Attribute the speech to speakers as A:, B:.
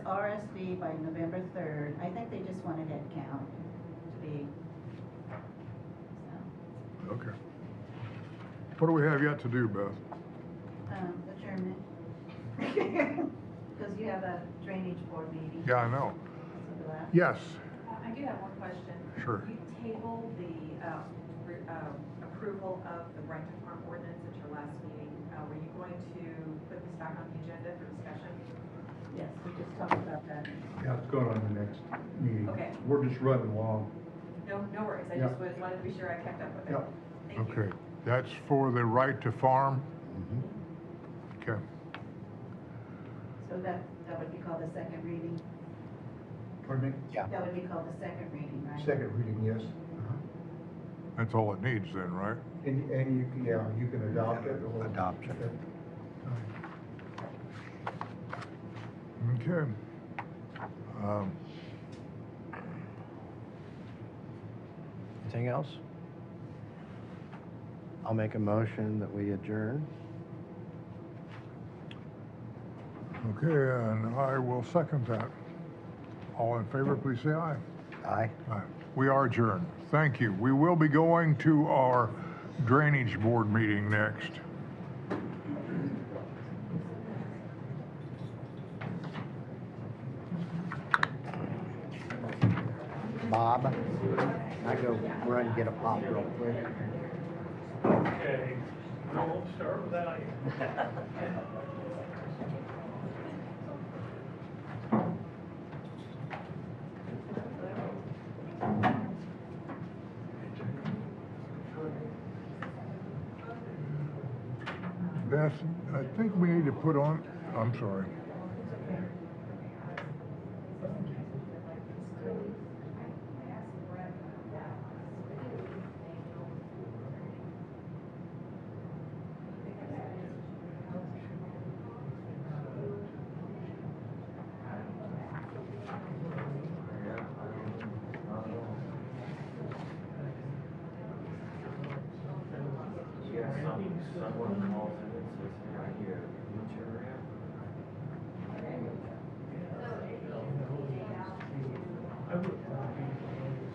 A: RSV by November third. I think they just want a head count to be. so,
B: Okay. What do we have yet to do, Beth?
A: Um, adjournment. Because you have a drainage board meeting.
B: Yeah, I know.
A: So do I.
B: Yes,
C: Uh, I do have one question.
B: Sure.
C: You tabled the uh, re- uh, approval of the right to farm ordinance at your last meeting. Uh, Were you going to put this back on the agenda for discussion?
A: Yes, we just talked about that.
D: Yeah, it's going on the next meeting.
C: Okay.
D: We're just running along.
C: No, no worries. I
D: Yeah.
C: just was- wanted to be sure I kept up with it.
D: Yeah.
C: Thank you.
B: okay. That's for the right to farm?
E: Mm-hmm.
B: Okay.
A: So that, that would be called the second reading.
D: Pardon
E: Yeah.
A: That would be called the second reading, right?
D: me? Second reading, yes.
B: That's all it needs then, right?
D: And, and you can, yeah, you can adopt it or.
E: Adoption.
B: Okay. Um,
E: Anything else? I'll make a motion that we adjourn.
B: Okay, and I will second that. All in favor, please say aye.
E: Aye.
B: Aye. We are adjourned. Thank you. We will be going to our drainage board meeting next.
E: Bob, I go run and get a pop real quick.
F: Okay, I won't start without you.
B: Beth, I think we need to put on, I'm sorry.
G: Yeah, some, someone calls in and says, hey,